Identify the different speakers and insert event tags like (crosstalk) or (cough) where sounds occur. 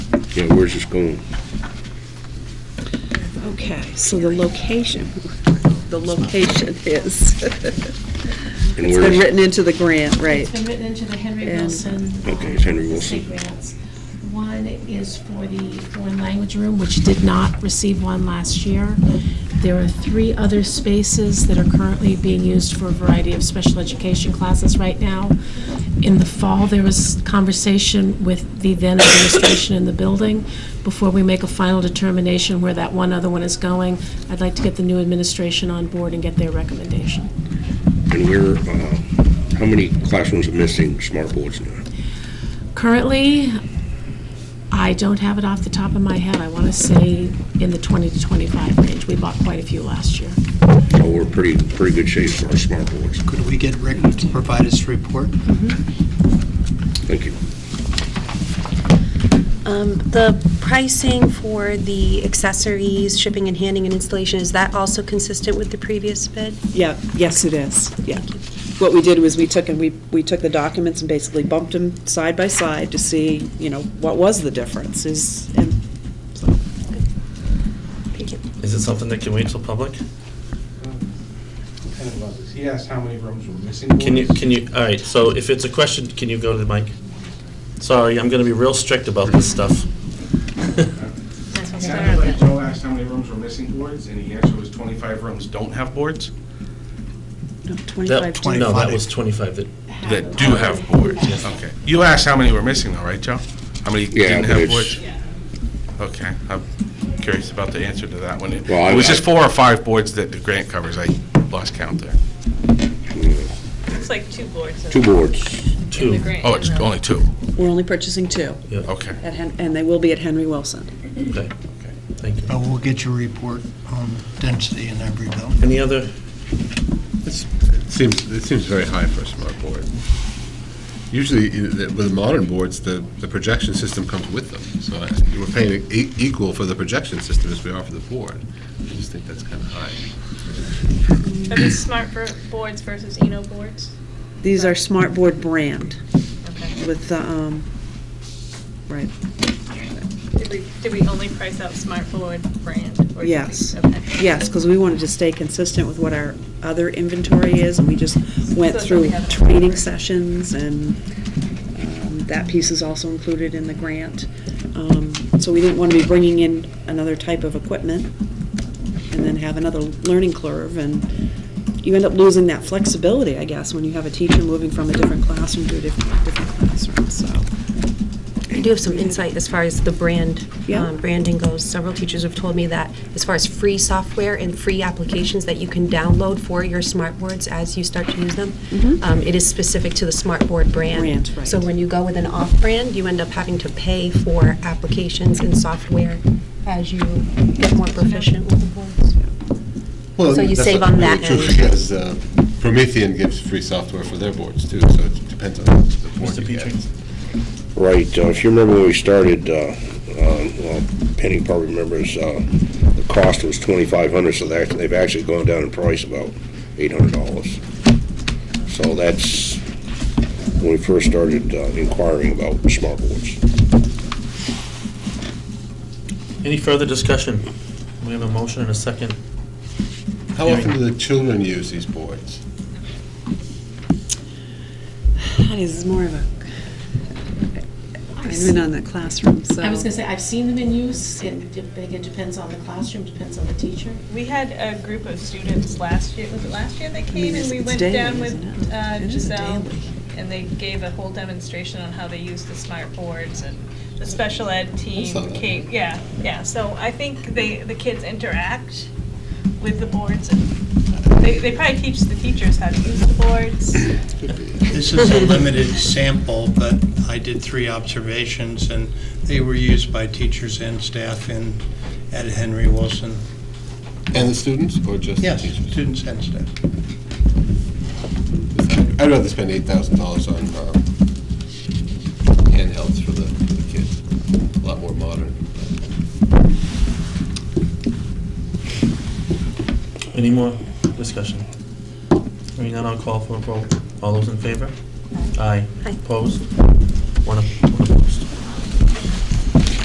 Speaker 1: Okay, where's this going?
Speaker 2: Okay, so the location, the location is, (laughs) it's
Speaker 1: And
Speaker 2: been
Speaker 1: where's-
Speaker 2: written into the grant, right?
Speaker 3: It's been written into the Henry
Speaker 2: And-
Speaker 3: Wilson.
Speaker 1: Okay, it's Henry
Speaker 3: um,
Speaker 1: Wilson.
Speaker 3: State grants. One is for the foreign language room, which did not receive one last year. There are three other spaces that are currently being used for a variety of special education classes right now. In the fall, there was conversation with the then administration in the building. Before we make a final determination where that one other one is going, I'd like to get the new administration on board and get their recommendation.
Speaker 1: And where, uh, how many classrooms are missing smart boards now?
Speaker 3: Currently, I don't have it off the top of my head. I want to say in the 20 to 25 range. We bought quite a few last year.
Speaker 1: So we're pretty, pretty good shape for our smart boards.
Speaker 4: Could we get Rick to provide us a report?
Speaker 1: Thank you.
Speaker 5: Um, The pricing for the accessories, shipping and handing and installation, is that also consistent with the previous bid?
Speaker 2: Yeah, yes, it is, yeah. What we did was we took and we, we took the documents and basically bumped them side by side to see, you know, what was the difference is, and so.
Speaker 5: Thank you.
Speaker 6: Is it something that can wait till public?
Speaker 7: Kind of others. He asked how many rooms were missing.
Speaker 6: Can you,
Speaker 7: boards.
Speaker 6: can you, all right, so if it's a question, can you go to the mic? Sorry, I'm gonna be real strict about this stuff.
Speaker 7: It sounded like Joe asked how many rooms were missing boards, and the answer was 25 rooms don't have boards.
Speaker 2: No,
Speaker 6: That-
Speaker 2: 25 to-
Speaker 6: No, that was 25 that
Speaker 7: That do have boards, okay. You asked how many were missing though, right, Joe? How many
Speaker 1: Yeah,
Speaker 7: didn't
Speaker 1: but
Speaker 7: have
Speaker 1: it's-
Speaker 7: boards? Okay, I'm curious about the answer to that one. It
Speaker 1: Well, I-
Speaker 7: it was just
Speaker 1: I-
Speaker 7: four or five boards that the grant covers, I lost count there.
Speaker 8: It's like two boards.
Speaker 1: Two boards.
Speaker 6: two.
Speaker 7: Oh, it's only two,
Speaker 2: We're only purchasing two,
Speaker 7: okay.
Speaker 2: at Hen- and they will be at Henry Wilson.
Speaker 6: Okay, thank you.
Speaker 4: But we'll get your report on density in every building.
Speaker 6: Any other,
Speaker 9: It's- It seems, it seems very high for a smart board. Usually, i- the- with modern boards, the, the projection system comes with them, so I- we're paying e- equal for the projection system as we are for the board. I just think that's kind of high.
Speaker 8: Are these smart ver- boards versus Eno boards?
Speaker 2: These are Smart Board brand
Speaker 8: Okay.
Speaker 2: with, the, um, right,
Speaker 8: Did we, did we only price out smart board brand? or did we-
Speaker 2: Yes.
Speaker 8: okay.
Speaker 2: Yes, because we wanted to stay consistent with what our other inventory is, and we just went
Speaker 8: So
Speaker 2: through
Speaker 8: we have-
Speaker 2: training sessions, and um, that piece is also included in the grant. Um, So we didn't want to be bringing in another type of equipment and then have another learning curve, and you end up losing that flexibility, I guess, when you have a teacher moving from a different classroom to a different, different classroom, so.
Speaker 5: I do have some insight as far as the brand,
Speaker 2: Yeah.
Speaker 5: um, branding goes. Several teachers have told me that as far as free software and free applications that you can download for your smart boards as you start to use them, um, it is specific to the smart board brand.
Speaker 2: Mm-hmm. Brand, right.
Speaker 5: So when you go with an off-brand, you end up having to pay for applications and software as you get more proficient with the boards.
Speaker 9: Well,
Speaker 5: So you
Speaker 9: that's
Speaker 5: save
Speaker 9: not
Speaker 5: on that
Speaker 9: really true
Speaker 5: end.
Speaker 9: Because uh, Promethean gives free software for their boards too, so it depends on the board
Speaker 6: Mr.
Speaker 9: you get.
Speaker 6: Petrie?
Speaker 1: Right, uh, if you remember when we started, uh, um, well, Penny probably remembers, uh, the cost was 2,500, so they're- they've actually gone down in price about $800. So that's when we first started uh, inquiring about smart boards.
Speaker 6: any further discussion? We have a motion and a second.
Speaker 9: How often do the children use these boards?
Speaker 2: That is more of a, I've been on that classroom, so.
Speaker 3: I was gonna say, I've seen them in use, and I think it depends on the classroom, depends on the teacher.
Speaker 8: We had uh, a group of students last year, was it last year they came? And
Speaker 2: it's-
Speaker 8: we
Speaker 2: it's
Speaker 8: went
Speaker 2: daily,
Speaker 8: down with
Speaker 2: isn't it?
Speaker 8: uh,
Speaker 2: It is a
Speaker 8: Giselle,
Speaker 2: daily.
Speaker 8: and they gave a whole demonstration on how they use the smart boards and the special ed
Speaker 9: saw
Speaker 8: team
Speaker 9: that.
Speaker 8: came, yeah, yeah. So I think they, the kids interact with the boards, and they, they probably teach the teachers how to use the boards.
Speaker 4: This is a limited sample, but I did three observations, and they were used by teachers and staff in, at Henry Wilson.
Speaker 9: And the students, or just the
Speaker 4: Yes,
Speaker 9: teachers?
Speaker 4: students and staff.
Speaker 9: I'd rather spend eight thousand dollars on um, handhelds for the, for the kids. A lot more modern.
Speaker 6: Any more discussion? Hearing none, I'll call for a vote. All those in favor? Aye.
Speaker 5: Aye.
Speaker 6: Opposed? One,